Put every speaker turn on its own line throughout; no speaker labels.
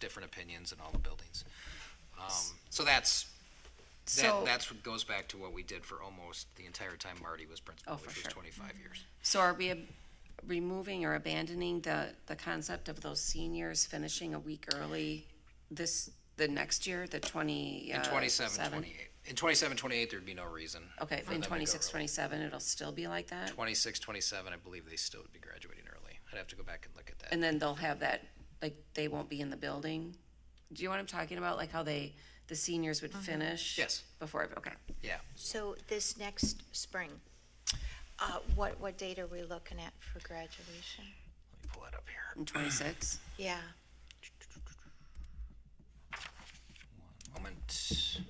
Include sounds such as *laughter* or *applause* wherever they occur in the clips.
different opinions in all the buildings. Um, so that's, that,
So,
that's what goes back to what we did for almost the entire time Marty was principal,
Oh, for
which was
sure.
twenty-five years.
so are we ab- removing or abandoning the, the concept of those seniors finishing a week early this, the next year, the twenty?
In
uh,
twenty-seven,
seven?
twenty-eight, in twenty-seven, twenty-eight, there'd be no reason.
Okay,
for them
in
to go
twenty-six,
early.
twenty-seven, it'll still be like that?
Twenty-six, twenty-seven, I believe they still would be graduating early. I'd have to go back and look at that.
And then they'll have that, like, they won't be in the building? Do you know what I'm talking about? Like how they, the seniors would finish?
Yes.
Before, okay.
Yeah,
So this next spring, uh, what, what date are we looking at for graduation?
let me pull it up here.
In twenty-six? *coughs*
Yeah,
Moment.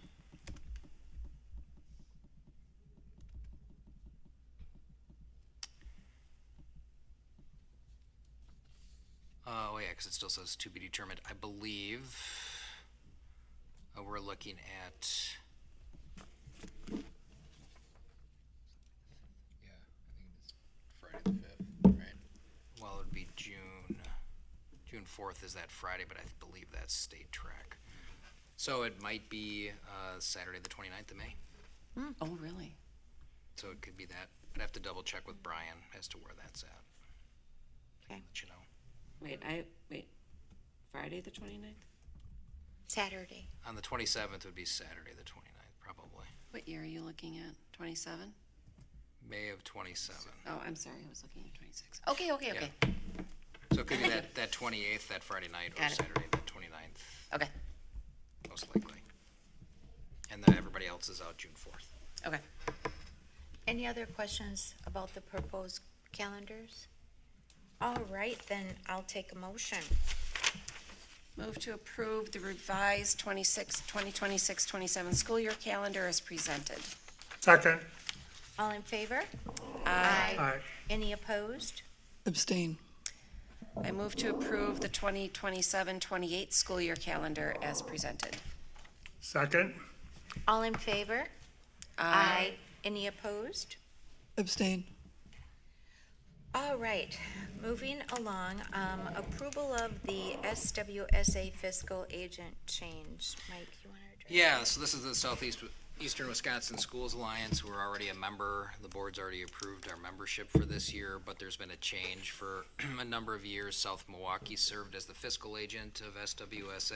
Uh, oh yeah, because it still says to be determined. I believe uh, we're looking at.
Yeah, I think it's Friday the fifth, right?
Well, it'd be June, June fourth is that Friday, but I believe that's state track. So it might be, uh, Saturday, the twenty-ninth of May,
Oh, really?
so it could be that. I'd have to double check with Brian as to where that's at. I can
Okay.
Let you know,
Wait, I, wait, Friday, the twenty-ninth?
Saturday.
on the twenty-seventh would be Saturday, the twenty-ninth, probably,
What year are you looking at? Twenty-seven?
May of twenty-seven.
Oh, I'm sorry, I was looking at twenty-six. Okay, okay, okay,
So it could be that, that twenty-eighth, that Friday night, or
Got it.
Saturday, the twenty-ninth,
okay,
most likely. And then everybody else is out June fourth.
okay.
Any other questions about the proposed calendars? All right, then I'll take a motion.
Move to approve the revised 26, 2026, 27 school year calendar as presented.
Second,
All in favor? Aye.
aye.
Any opposed?
Abstain.
I move to approve the 2027, 28 school year calendar as presented.
Second,
All in favor? Aye. Any opposed?
Abstain.
All right, moving along, um, approval of the SWSA fiscal agent change. Mike, you want to address?
Yeah, so this is the Southeast, Eastern Wisconsin Schools Alliance. We're already a member. The board's already approved our membership for this year, but there's been a change for *clears throat* a number of years. South Milwaukee served as the fiscal agent of SWSA.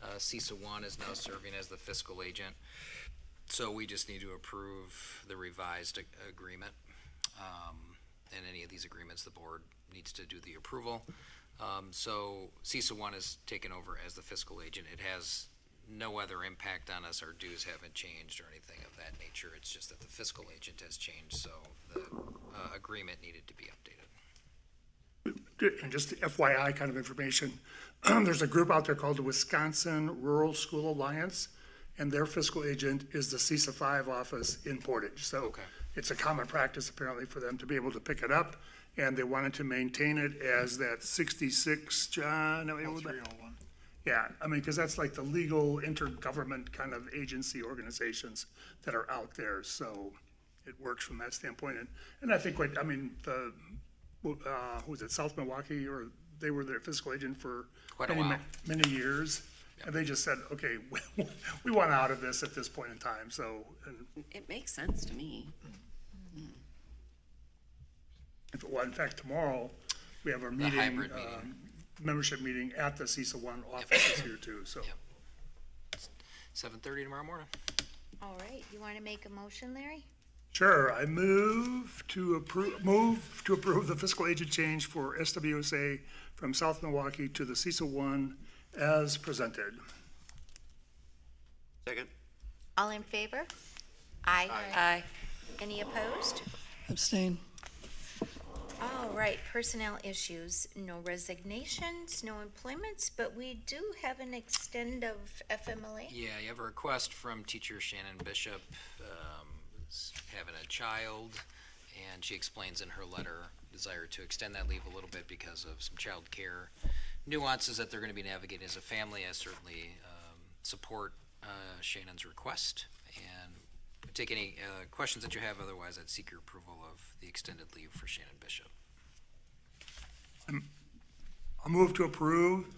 Uh, CISA one is now serving as the fiscal agent. So we just need to approve the revised ag- agreement. Um, and any of these agreements, the board needs to do the approval. Um, so CISA one is taken over as the fiscal agent. It has no other impact on us. Our dues haven't changed or anything of that nature. It's just that the fiscal agent has changed, so the uh, agreement needed to be updated.
and just FYI kind of information, *clears throat* there's a group out there called the Wisconsin Rural School Alliance, and their fiscal agent is the CISA five office in Portage. So
Okay.
it's a common practice apparently for them to be able to pick it up, and they wanted to maintain it as that sixty-six, John? Oh, three oh one. Yeah, I mean, because that's like the legal intergovernment kind of agency organizations that are out there, so it works from that standpoint. And, and I think, what I mean, the, uh, who was it, South Milwaukee, or they were their fiscal agent for
Quite a
many,
while.
many years. And they just said, okay, *laughs* we, we want out of this at this point in time, so, and
It makes sense to me.
if, well, in fact, tomorrow, we have our meeting.
hybrid meeting.
um, Membership meeting at the CISA one office is here too, so.
Yep. Seven thirty tomorrow morning.
All right, you want to make a motion, Larry?
Sure, I move to approve, move to approve the fiscal agent change for SWSA from South Milwaukee to the CISA one as presented.
Second?
All in favor? Aye.
Aye.
Any opposed?
Abstain.
All right, personnel issues, no resignations, no employments, but we do have an extend of FMLA.
Yeah, you have a request from teacher Shannon Bishop, um, is having a child, and she explains in her letter desire to extend that leave a little bit because of some child care nuances that they're gonna be navigating as a family. I certainly, um, support, uh, Shannon's request, and would take any, uh, questions that you have, otherwise I'd seek your approval of the extended leave for Shannon Bishop.
I'll move to approve